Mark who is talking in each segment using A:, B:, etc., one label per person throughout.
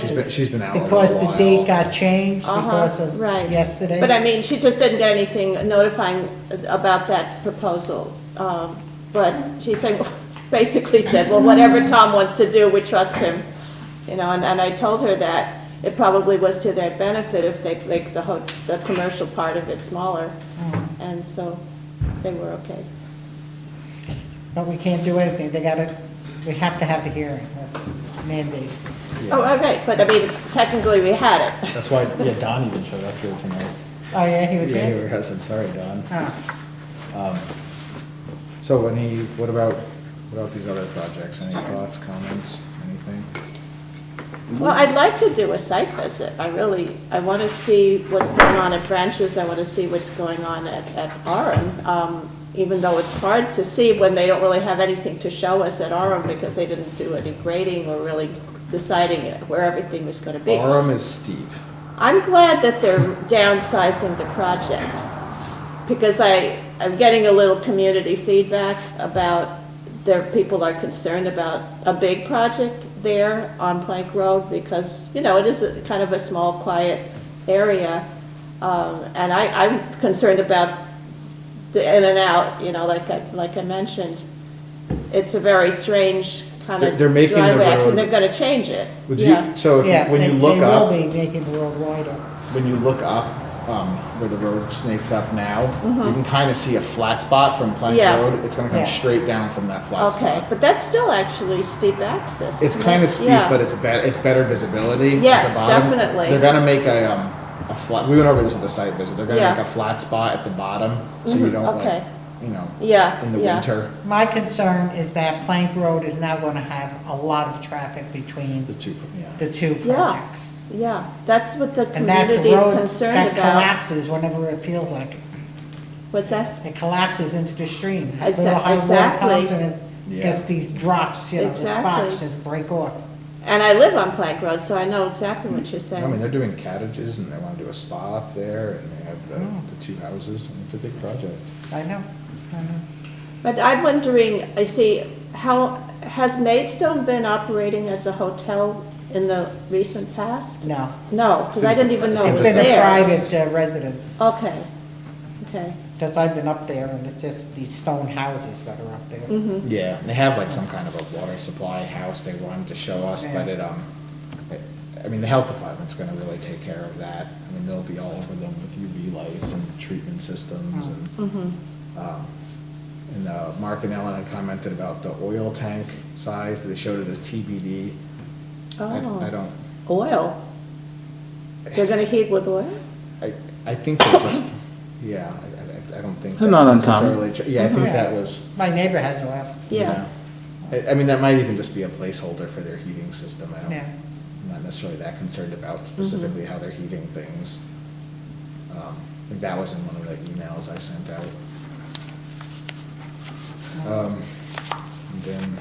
A: She's been- She's been out a
B: Because
A: little
B: the date
A: while.
B: got changed because
C: Uh-huh,
B: of
C: right.
B: yesterday.
C: But I mean, she just didn't get anything notifying about that proposal. Um, But she said, basically said, well, whatever Tom wants to do, we trust him. You know, and, and I told her that it probably was to their benefit if they make the whole, the commercial part of it smaller.
B: Oh,
C: And so they were okay.
B: But we can't do anything, they gotta, we have to have the hearing, that's mandated.
C: Oh, all right, but I mean, technically we had it.
D: That's why, yeah, Don even showed up here tonight.
B: Oh, yeah, he
D: Yeah,
B: was
D: you were
B: here?
D: hesitant, sorry, Don.
B: Oh.
D: Um,
A: So when he, what about, what about these other projects? Any thoughts, comments, anything?
C: Well, I'd like to do a site visit, I really, I want to see what's going on at Branches, I want to see what's going on at, at Orem, um, even though it's hard to see when they don't really have anything to show us at Orem because they didn't do any grading or really deciding where everything was going to be.
A: Orem is steep.
C: I'm glad that they're downsizing the project, because I, I'm getting a little community feedback about, there, people are concerned about a big project there on Plank Road, because, you know, it is a kind of a small, quiet area, um, and I, I'm concerned about the in and out, you know, like I, like I mentioned. It's a very strange kind
A: They're-
C: of
A: they're making the
C: driveway, actually,
A: road-
C: they're gonna change it,
A: Would
C: yeah.
A: you, so if,
B: Yeah,
A: you- when
B: they-
A: you look
B: They
A: up,
B: will be making the world wider.
A: when you look up, um, where the road snakes up now, you can kind of see a flat spot from Plank
C: Yeah.
A: Road. It's gonna come
B: Mm-hmm. Yeah.
A: straight down from that flat
C: Okay,
A: spot.
C: but that's still actually steep access.
A: It's
C: isn't
A: kind
C: it?
A: of steep,
C: Yeah.
A: but it's better, it's better visibility. at the
C: Yes,
A: bottom.
C: definitely.
A: They're gonna make a, um, a flat, we went over this at the site visit. They're gonna
C: Yeah.
A: make a flat spot at the bottom, so you
C: Mhm,
A: don't like,
C: okay.
A: you know,
C: Yeah,
A: in the
C: yeah.
A: winter.
B: My concern is that Plank Road is now gonna have a lot of traffic
A: The
B: between
A: two, yeah.
B: the two
C: Yeah,
B: projects.
C: yeah, that's what the
B: And that's a
C: community is
B: road
C: concerned
B: that
C: about.
B: collapses whenever it feels like it.
C: What's that?
B: It collapses into the stream.
C: Exac-
B: Little high water
C: exactly.
B: comes and it
A: Yeah.
B: gets these drops, you know, the
C: Exactly.
B: spots just break off.
C: And I live on Plank Road, so I know exactly what you're
A: I mean,
C: saying.
A: they're doing cottages and they want to do a spa up there and they have the,
C: Mm.
A: the two houses and it's a big project.
B: I know, I know.
A: Mm-hmm.
C: But I'm wondering, I see, how, has Maidstone been operating as a hotel in the recent past?
B: No.
C: No, because I didn't even know it
B: It's
C: was
B: been a
C: there.
B: private uh, residence,
C: Okay, okay,
B: because I've been up there, and it's just these stone houses that are up there.
C: hmm
A: Yeah. They have like some kind of a water supply house they wanted to show us, but it, um, it- I mean, the health department's gonna really take care of that. I mean, they'll be all over them with UV lights and treatment systems and.
C: hmm
A: Um, And uh, Mark and Ellen had commented about the oil tank size, they showed it as TBD. I-
C: Oh.
A: I don't,
C: Oil. They're gonna heat with oil?
A: I, I think they just, yeah, I- I, I don't think.
E: Not
A: that's
E: uncommon.
A: necessarily tr- Yeah, I think that was,
B: My neighbor has a well.
C: Yeah.
A: yeah. I, I mean, that might even just be a placeholder for their heating system, I don't,
B: Yeah.
A: I'm not necessarily that concerned about specifically
C: Mm-hmm.
A: how they're heating things. Um, I think that was in one of the emails I sent out. Um, And then,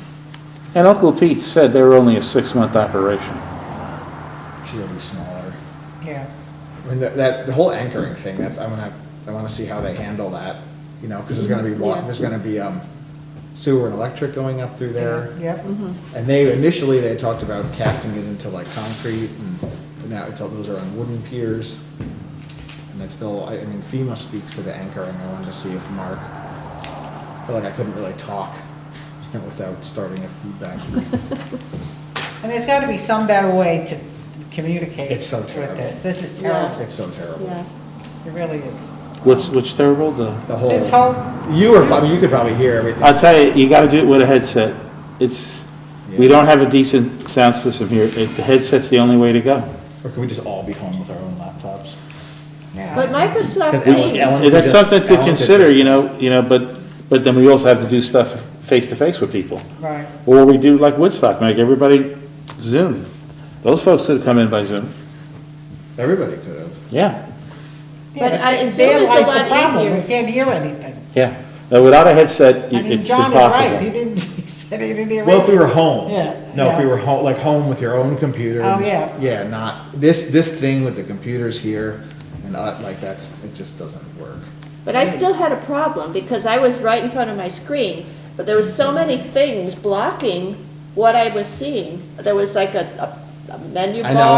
E: And Uncle Pete said they were only a six-month operation.
A: she will be smaller.
B: Yeah,
A: I mean, that, that, the whole anchoring thing, that's, I'm gonna, I wanna see how they handle that, you know, cause there's gonna be wa,
C: Yeah.
A: there's gonna be, um, sewer and electric going up through there.
B: yep,
C: Mm-hmm.
A: And they, initially, they talked about casting it into like concrete, and but now it's, all- those are on wooden piers. And it's still, I, I mean FEMA speaks to the anchoring, I wanted to see if Mark, I feel like I couldn't really talk, you know, without starting a feedback loop.
B: and there's got to be some better way to communicate.
A: It's so
B: with
A: terrible.
B: this. This is
C: Yeah.
B: terrible,
A: It's so terrible.
C: Yeah.
B: it really is.
E: What's, what's terrible, the,
A: The whole.
B: This whole,
A: You were, I mean, you could probably hear everything.
E: I'll tell you, you gotta do it with a headset. It's, we
A: Yeah.
E: don't have a decent sound system here. It- The headset's the only way to go.
A: Or can we just all be home with our own laptops?
C: But Microsoft
A: Because Ellen-
C: Teams.
A: Ellen-
E: And that's something to
A: Alan did
E: consider,
A: this.
E: you know, you know, but, but then we also have to do stuff face-to-face with people.
B: right,
E: Or we do like Woodstock, make everybody Zoom. Those folks could come in by Zoom.
A: Everybody could have.
E: Yeah,
B: yeah,
C: But I-
B: but
C: Zoom
B: there
C: is a
B: lies the
C: lot
B: problem,
C: easier.
B: we can't hear anything.
E: yeah. Now, Without a headset,
B: I
E: it-
B: mean,
E: it's
B: John is right, he
E: impossible.
B: didn't, he said he didn't hear anything.
A: Well, if we were home.
B: Yeah,
A: No, if we
B: yeah.
A: were home, like home with your own computer.
B: Oh,
A: and-
B: yeah.
A: Yeah, not, this, this thing with the computers here and uh, like that's, it just doesn't work.
C: But I still had a problem because I was right in front of my screen, but there was so many things blocking what I was seeing. There was like a, a a menu
A: I know, and
C: bar.